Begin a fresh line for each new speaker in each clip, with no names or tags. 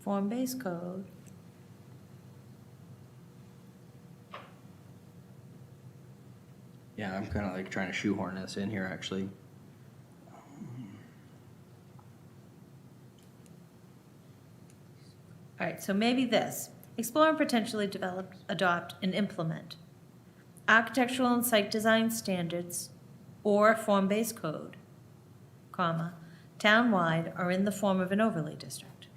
form-based code.
Yeah, I'm kind of like trying to shoehorn this in here, actually.
All right, so maybe this, explore and potentially develop, adopt, and implement architectural and site design standards or form-based code, comma, townwide or in the form of an overlay district.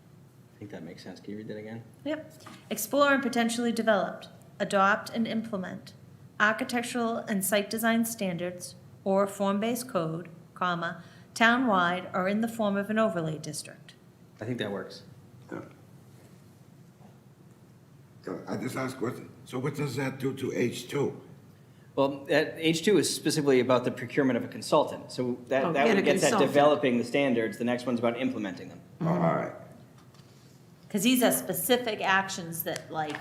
I think that makes sense. Can you read that again?
Yep. Explore and potentially develop, adopt and implement architectural and site design standards or form-based code, comma, townwide or in the form of an overlay district.
I think that works.
Yeah. So I just ask what, so what does that do to H two?
Well, that H2 is specifically about the procurement of a consultant, so
Oh,
that, that
get a
would get that
consultant.
developing the standards, the next one's about implementing them.
Oh, All right,
Because these are specific actions that like,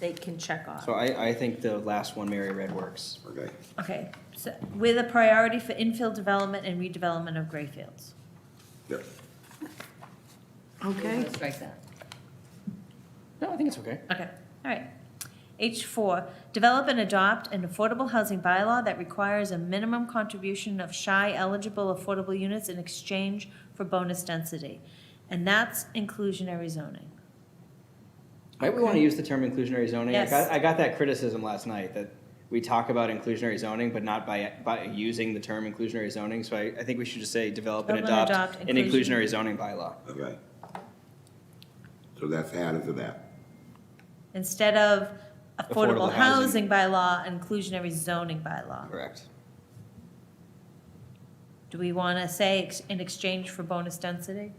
they can check off.
So I, I think the last one Mary read works.
okay.
Okay, so with a priority for infill development and redevelopment of gray fields.
Yeah.
Okay,
Strike that.
No, I think it's okay.
Okay, all right. H four, develop and adopt an affordable housing bylaw that requires a minimum contribution of shy eligible affordable units in exchange for bonus density. And that's inclusionary zoning.
Might we want to use the term inclusionary zoning? I
Yes.
got, I got that criticism last night, that we talk about inclusionary zoning, but not by, by using the term inclusionary zoning, so I, I think we should just say develop and
Develop and
adopt
adopt
an
inclusion-
inclusionary zoning bylaw.
Okay. So that's added to that.
Instead of
Affordable
affordable
housing.
housing bylaw, inclusionary zoning bylaw.
Correct.
Do we want to say ex- in exchange for bonus density?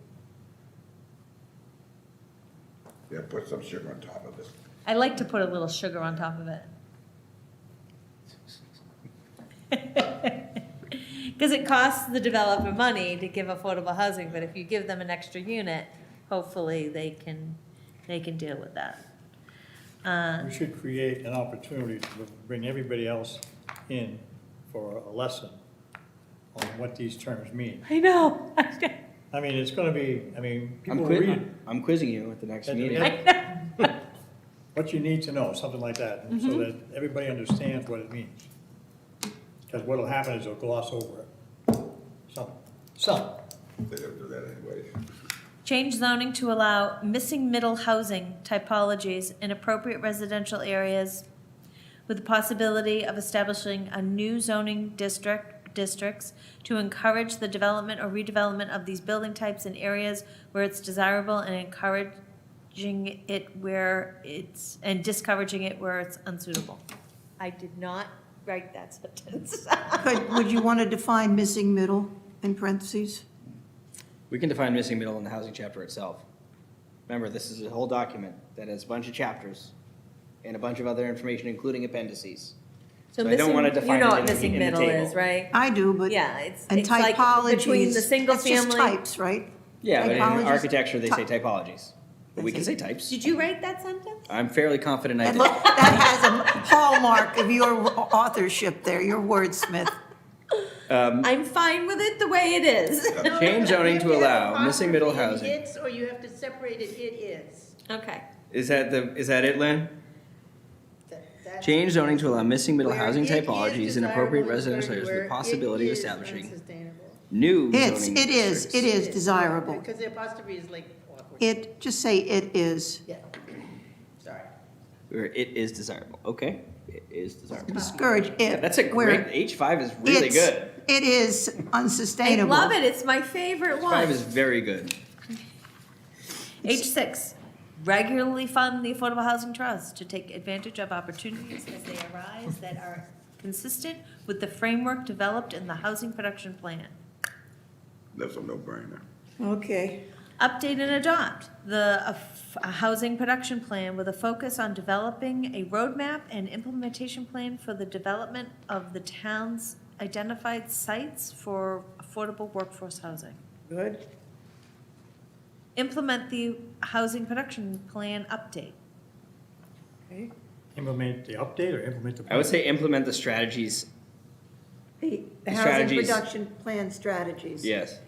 Yeah, put some sugar on top of this.
I like to put a little sugar on top of it. Because it costs the developer money to give affordable housing, but if you give them an extra unit, hopefully they can, they can deal with that.
We should create an opportunity to bring everybody else in for a lesson on what these terms mean.
I know.
I mean, it's gonna be, I mean,
I'm
people will read
quiz,
it.
I'm quizzing you at the next
and-
meeting.
and What you need to know, something like that, and so that everybody understands what it means. Because what'll happen is they'll gloss over it. Some, some,
They don't do that anyway.
Change zoning to allow missing middle housing typologies in appropriate residential areas with the possibility of establishing a new zoning district, districts to encourage the development or redevelopment of these building types in areas where it's desirable and encouraging it where it's, and discouraging it where it's unsuitable. I did not write that sentence.
Could- would you want to define missing middle in parentheses?
We can define missing middle in the housing chapter itself. Remember, this is a whole document that has a bunch of chapters and a bunch of other information, including appendices. So I don't wanna
missing-
define
You know
it
what
in the-
missing
in the
middle is,
table.
right?
I do, but.
Yeah, it's,
And
it's like
typologies.
between the single
That's just
family.
types, right?
Yeah, but in
Typologies.
architecture, they say
Ty-
typologies, but we can say types.
Did you write that sentence?
I'm fairly confident I
That
did.
look- that has a hallmark of your authorship there, your wordsmith.
I'm fine with it the way it is.
Change zoning to
You have
allow
a
missing middle
proper it
housing.
It's, or you have to separate it, it is.
Okay.
Is that the, is that it, Lynn?
That- that's-
Change zoning to allow missing middle
Where
housing
it is
typologies and appropriate
desirable
residential areas
where
with the
it
possibility of
is
establishing
unsustainable.
new
It's,
zoning
it is, it
districts.
is desirable.
Because the apostrophe is like awkward.
It, just say it is.
Yeah, sorry.
Where it is desirable, okay? It is desirable.
Discourage it.
Yeah, That's a
where
great, H five is really
it's-
good.
It is
I
unsustainable.
love it. It's my favorite
Five
one.
is very good.
H six, regularly fund the Affordable Housing Trust to take advantage of opportunities as they arise that are consistent with the framework developed in the Housing Production Plan.
That's a no brainer.
Okay.
Update and adopt the uh, f- uh, Housing Production Plan with a focus on developing a roadmap and implementation plan for the development of the town's identified sites for affordable workforce housing.
Good.
implement the housing production plan update.
implement the update or implement the.
I would say implement the strategies,
The
Strategies.
plan strategies.
yes.